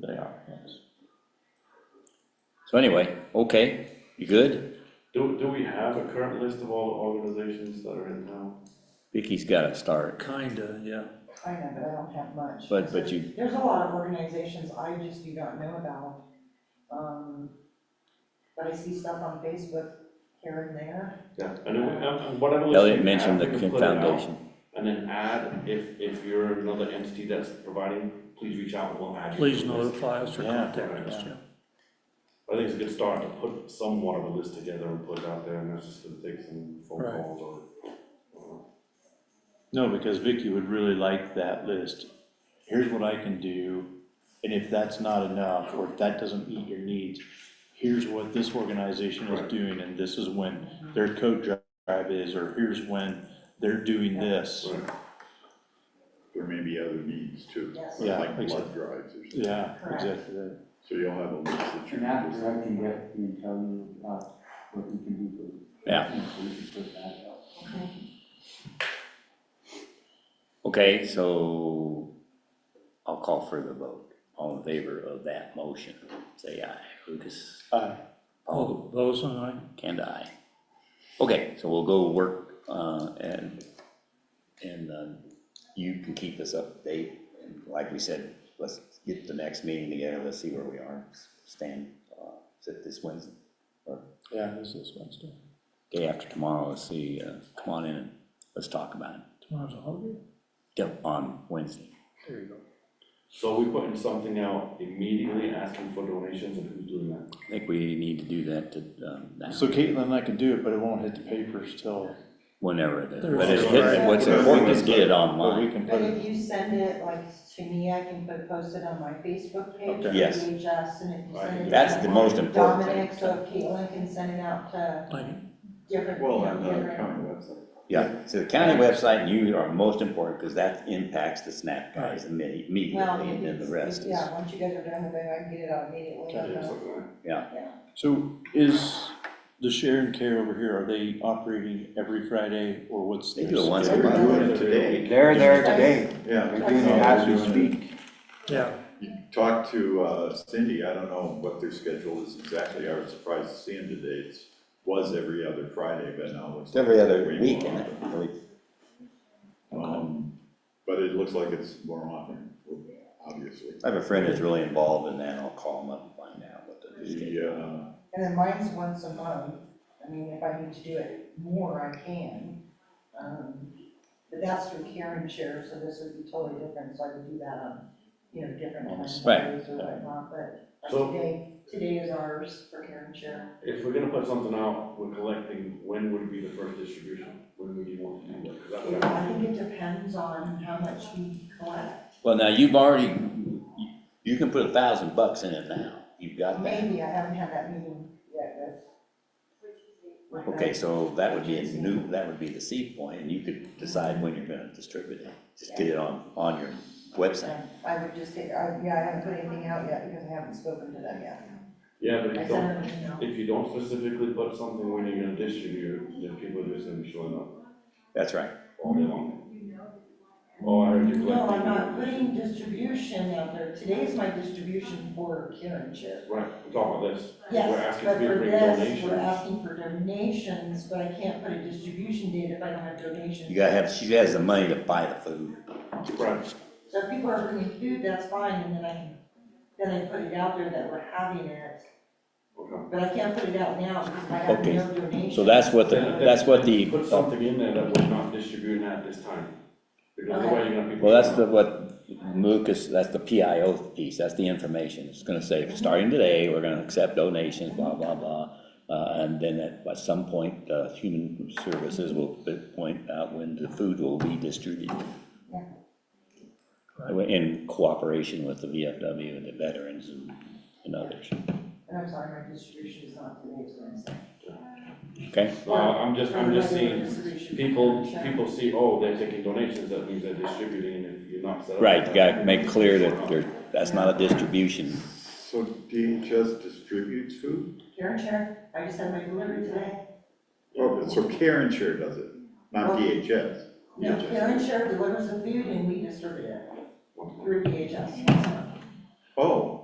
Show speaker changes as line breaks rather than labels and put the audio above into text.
They are, yes. So anyway, okay, you good?
Do, do we have a current list of all the organizations that are in town?
Vicky's gotta start,
Kinda, yeah.
I know, but I don't have much.
But- but you-
There's a lot of organizations I just do not know about. Um, But I see stuff on Facebook here and there.
Yeah. And then, we- and- and whatever list
Elliot
you
mentioned
have,
the
we can put it out,
foundation,
And then add, if, if you're another entity that's providing, please reach out, we'll add you. to
Please
the list.
notify us or
Yeah.
contact us, yeah.
I think it's a good start to put somewhat of a list together and put it out there, and that's just gonna take some phone
Right.
calls or.
No, because Vicky would really like that list. Here's what I can do, and if that's not enough, or if that doesn't meet your needs, here's what this organization is
Right.
doing, and this is when their code drive is, or here's when they're doing this.
Right.
There may be other needs too.
Yes.
Yeah,
Like
exactly.
blood drives or something.
Yeah,
Correct.
exactly. that.
So you'll have a list that you
And
can just.
after I can get, he can tell you about what we can do for.
Yeah.
We can put that out.
okay, so I'll call for the vote, all in favor of that motion, say aye, Lucas,
Uh,
All those and I,
and I. Okay, so we'll go work, uh, and, and, um, you can keep us up to date, and like we said, let's get the next meeting together, let's see where we are, stand, uh, is it this Wednesday?
Yeah, this is Wednesday.
Day after tomorrow, let's see, uh, come on in and let's talk about it,
tomorrow's a holiday?
Yep, on Wednesday.
There you go.
So we putting something out immediately, asking for donations, and who's doing that?
I think we need to do that to, um, now,
So Caitlin and I can do it, but it won't hit the papers till,
whenever it is,
There's-
but it's, what's important is get it
but we
online,
can put
But
it,
if you send it like to me, I can put, post it on my Facebook page.
Okay.
Yes.
Or VHS, and if you send it. to
that's the most important
Dominic,
thing.
so Caitlin can send it out to
Like,
different, you
Well,
know,
on the
different.
uh, county website.
Yeah, so the county website and you are most important, because that impacts the SNAP guys imme-
Well,
immediately, and then the
it's-
rest is.
Yeah, once you guys are done with it, I can get it out immediately.
Okay.
you know.
Something like that.
so is the share and care over here, are they operating every Friday, or what's?
They
their
do it once a
schedule?
month.
We're doing it today.
They're there today,
Yeah.
they're doing it as we speak.
yeah,
You talked to uh, Cindy, I don't know what their schedule is exactly, I was surprised to see them today, it was every other Friday, but now it's.
It's every other
way more
week, and
often.
I-
Um, But it looks like it's more often, obviously.
I have a friend that's really involved in that, I'll call him up and find out what the new schedule.
The, uh,
And then mine's once a month, I mean, if I need to do it more, I can. Um, But that's through Karen Chair, so this would be totally different, so I could do that on, you know, different times of
Right.
days or whatnot, but like
So-
today, today is ours for Karen Chair.
If we're gonna put something out, we're collecting, when would be the first distribution? When would you want to do that? 'Cause that would
I think it depends on how much we collect,
Well, now, you've already, you- you can put a thousand bucks in it now, you've got that.
maybe, I haven't had that meeting yet, but.
Okay, so that would be a new, that would be the seed point, and you could decide when you're gonna distribute it, just get it on, on your website.
I would just say, I, yeah, I haven't put anything out yet because I haven't spoken to them yet.
Yeah, but
I
if you don't,
sent them an email.
if you don't specifically put something when you're gonna distribute, then people are just gonna be showing up
That's right.
all day long. Oh, I heard you
No,
collecting.
I'm not putting distribution out there. Today is my distribution for Karen Chair.
Right, we're talking about this. We're
Yes,
asking
but
people to
for
bring
this,
donations.
we're asking for donations, but I can't put a distribution date if I don't have donations.
You gotta have, she has the money to buy the food.
Right,
So if people are bringing food, that's fine, and then I, can then I put it out there that we're having it.
okay.
But I can't put it out now because I have
Okay,
no donations.
So that's what the,
Then-
that's what the,
then Put something in there that we're not distributing at this time, because the way you're gonna be.
well, that's the, what Lucas, that's the PIO piece, that's the information. It's gonna say, starting today, we're gonna accept donations, blah, blah, blah. Uh, and then at, at some point, uh, Human Services will p- point out when the food will be distributed.
Yeah.
In cooperation with the VFW and the veterans and, and others,
And I'm sorry, my distribution is not today, it's Wednesday.
okay?
No, Uh, I'm just, I'm just
Regular
seeing,
distribution for
people,
Karen Chair.
people see, oh, they're taking donations, that means they're distributing, and if you're not set up.
Right, you gotta make clear that there, that's not a distribution.
So DHS distributes food?
Karen Chair, I just had my delivery today.
Oh, so Karen Share does it,
Oh.
not DHS.
No,
DHS.
Karen Share delivers the food and we distribute it
Okay.
through DHS.
Oh,